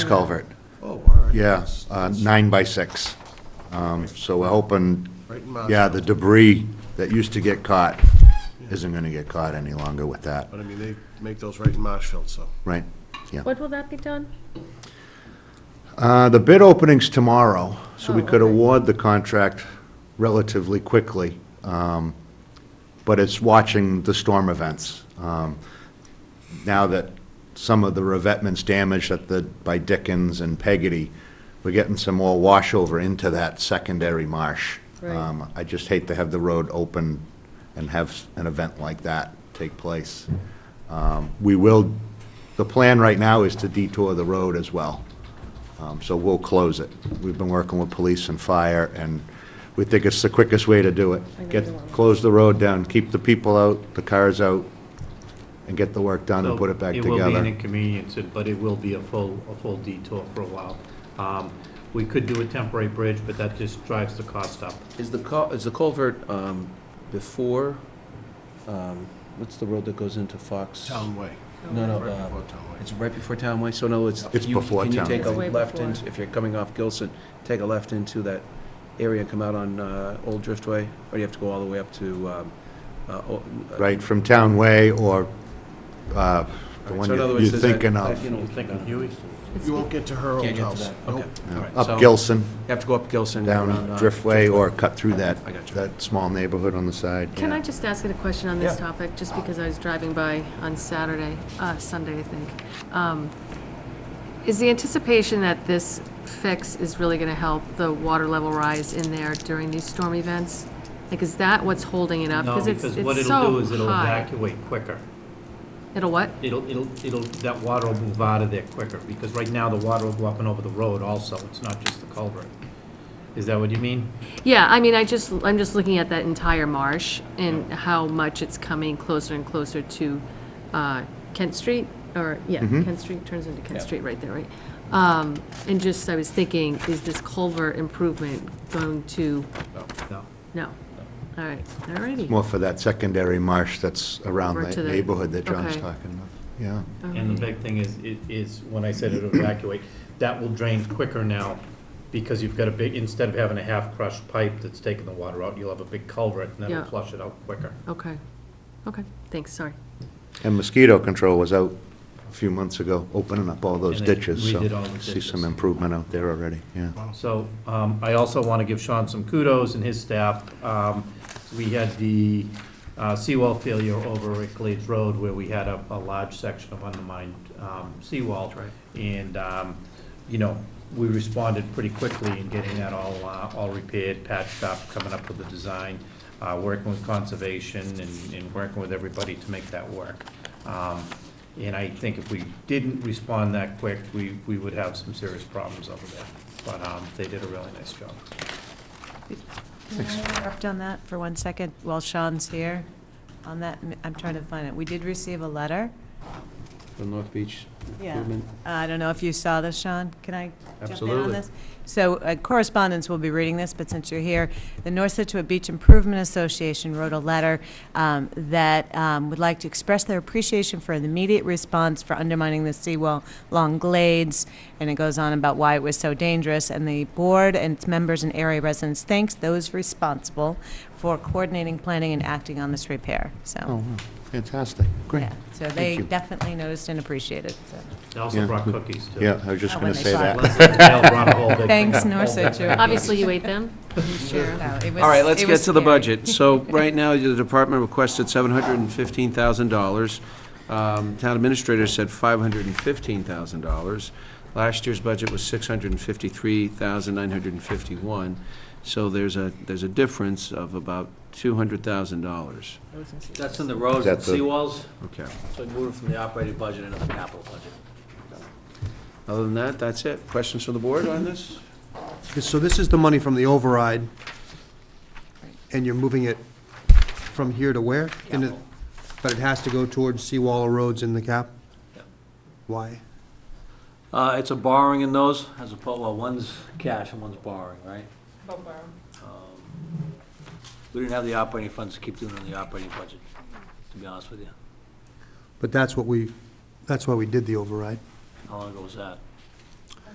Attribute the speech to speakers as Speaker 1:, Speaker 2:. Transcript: Speaker 1: culvert.
Speaker 2: Oh, all right.
Speaker 1: Yeah,
Speaker 2: That's-
Speaker 1: uh,
Speaker 2: that's
Speaker 1: nine by six. Um, So we're hoping,
Speaker 2: Right in my-
Speaker 1: yeah, the debris that used to get caught isn't going to get caught any longer with that,
Speaker 2: But I mean, they make those right in Marshfield, so.
Speaker 1: right? Yeah.
Speaker 3: When will that be done?
Speaker 1: Uh, The bid opening's tomorrow, so we
Speaker 3: Oh,
Speaker 1: could
Speaker 3: okay.
Speaker 1: award the contract relatively quickly. um, But it's watching the storm events. Um, Now that some of the revetment's damaged at the, by Dickens and Peggotty, we're getting some more washover into that secondary marsh.
Speaker 3: Right.
Speaker 1: Um, I just hate to have the road open and have an event like that take place. Um, We will, the plan right now is to detour the road as well. Um, So we'll close it. We've been working with police and fire, and we think it's the quickest way to do it.
Speaker 3: I know
Speaker 1: Get,
Speaker 3: you want-
Speaker 1: close the road down, keep the people out, the cars out, and get the work done and put it back
Speaker 4: It will be an
Speaker 1: together.
Speaker 4: inconvenience, but it will be a full, a full detour for a while. Um, We could do a temporary bridge, but that just drives the cost up.
Speaker 5: Is the cul, is the culvert, um, before, um, what's the road that goes into Fox?
Speaker 2: Town Way.
Speaker 5: No, no,
Speaker 2: Right
Speaker 5: uh,
Speaker 2: before Town Way.
Speaker 5: It's right before Town Way, so no, it's.
Speaker 1: It's
Speaker 5: you-
Speaker 1: before Town
Speaker 5: Can you take
Speaker 1: Way.
Speaker 5: a
Speaker 3: It's way
Speaker 5: left
Speaker 3: before.
Speaker 5: into, if you're coming off Gilson, take a left into that area and come out on, uh, Old Driftway? Or you have to go all the way up to, um, uh, O- uh,
Speaker 1: Right, from Town Way or uh, the
Speaker 5: Alright,
Speaker 1: one
Speaker 5: so in other
Speaker 1: you-
Speaker 5: words,
Speaker 1: you're
Speaker 5: there's that-
Speaker 1: thinking
Speaker 5: that,
Speaker 1: of,
Speaker 5: you know,
Speaker 4: You think of Huey?
Speaker 2: You won't get to her old
Speaker 5: Can't get to
Speaker 2: house.
Speaker 5: that,
Speaker 2: Nope.
Speaker 5: okay.
Speaker 1: yeah,
Speaker 5: All right, so
Speaker 1: up Gilson,
Speaker 5: You have to go up Gilson.
Speaker 1: down
Speaker 5: around, uh,
Speaker 1: Driftway, or cut through that,
Speaker 5: I got you.
Speaker 1: that small neighborhood on the side.
Speaker 3: Can
Speaker 1: yeah.
Speaker 3: I just ask you a question on this
Speaker 5: Yeah.
Speaker 3: topic, just because I was driving by on Saturday, uh, Sunday, I think? Um, Is the anticipation that this fix is really going to help the water level rise in there during these storm events? Like, is that what's holding it up?
Speaker 4: No,
Speaker 3: it's
Speaker 4: because
Speaker 3: it's
Speaker 4: what it'll
Speaker 3: so
Speaker 4: do is it'll
Speaker 3: high.
Speaker 4: evacuate quicker.
Speaker 3: It'll what?
Speaker 4: It'll, it'll, it'll, that water will move out of there quicker, because right now the water will go up and over the road also, it's not just the culvert. Is that what you mean?
Speaker 3: Yeah, I mean, I just, I'm just looking at that entire marsh and how much it's coming closer and closer to uh, Kent Street, or, yeah, Kent Street turns into Kent Street right there, right? Um, And just, I was thinking, is this culvert improvement going to,
Speaker 4: No.
Speaker 3: no, all right, all righty.
Speaker 1: More for that secondary marsh that's around
Speaker 3: Over
Speaker 1: that
Speaker 3: to the-
Speaker 1: neighborhood that John's
Speaker 3: okay.
Speaker 1: talking about, yeah.
Speaker 4: And the big thing is, i- is when I said it'll evacuate, that will drain quicker now because you've got a big, instead of having a half-crushed pipe that's taking the water out, you'll have a big culvert and that'll
Speaker 3: Yeah.
Speaker 4: flush it out quicker.
Speaker 3: Okay, okay, thanks, sorry.
Speaker 1: And mosquito control was out a few months ago, opening up all those
Speaker 4: And they
Speaker 1: ditches, so
Speaker 4: redid all the
Speaker 1: see some
Speaker 4: ditches.
Speaker 1: improvement out there already, yeah.
Speaker 4: So um, I also want to give Sean some kudos and his staff. Um, We had the uh, seawall failure over at Glades Road where we had a, a large section of undermined um, seawall. And, um, you know, we responded pretty quickly in getting that all, uh, all repaired, patched up, coming up with the design, uh, working with conservation and, and working with everybody to make that work. Um, And I think if we didn't respond that quick, we, we would have some serious problems over there. But um, they did a really nice job.
Speaker 6: Can I interrupt on that for one second while Sean's here? On that, I'm trying to find it. We did receive a letter.
Speaker 5: The North Beach
Speaker 6: Yeah. Uh,
Speaker 5: improvement.
Speaker 6: I don't know if you saw this, Sean. Can I jump in on
Speaker 5: Absolutely.
Speaker 6: this? So uh, correspondents will be reading this, but since you're here, the North Situate Beach Improvement Association wrote a letter um, that um, would like to express their appreciation for the immediate response for undermining the seawall along Glades, and it goes on about why it was so dangerous, and the board and its members and area residents thanks those responsible for coordinating, planning, and acting on this repair,
Speaker 1: Oh,
Speaker 6: so.
Speaker 1: wow, fantastic, great.
Speaker 6: yeah. So
Speaker 1: Thank
Speaker 6: they
Speaker 1: you.
Speaker 6: definitely noticed and appreciated, so.
Speaker 4: They also
Speaker 1: Yeah.
Speaker 4: brought cookies, too.
Speaker 1: Yeah, I was just
Speaker 6: Oh,
Speaker 1: gonna
Speaker 6: when they
Speaker 1: say
Speaker 6: saw
Speaker 1: that.
Speaker 6: it.
Speaker 4: Leslie and Dale brought a whole big thing-
Speaker 6: Thanks, North
Speaker 4: whole big
Speaker 6: Situate.
Speaker 4: thing.
Speaker 3: Obviously, you ate them?
Speaker 6: No, it was-
Speaker 5: All right, let's
Speaker 6: it
Speaker 5: get
Speaker 6: was
Speaker 5: to the
Speaker 6: scary.
Speaker 5: budget. So right now, the department requested seven hundred and fifteen thousand dollars. Um, Town administrator said five hundred and fifteen thousand dollars. Last year's budget was six hundred and fifty-three thousand nine hundred and fifty-one. So there's a, there's a difference of about two hundred thousand dollars.
Speaker 7: That's in the roads and
Speaker 1: That's a-
Speaker 7: seawalls,
Speaker 5: Okay.
Speaker 7: so we move it from the operating budget into the capital budget.
Speaker 5: Other than that, that's it. Questions from the board on this?
Speaker 8: So this is the money from the override, and you're moving it from here to where? And it-
Speaker 7: Capital.
Speaker 8: But it has to go towards seawall roads in the cap?
Speaker 7: Yep.
Speaker 8: Why?
Speaker 7: Uh, it's a borrowing in those, as opposed, well, one's cash and one's borrowing, right? Um, We didn't have the operating funds to keep doing on the operating budget, to be honest with you.
Speaker 8: But that's what we, that's why we did the override.
Speaker 7: How long ago was that?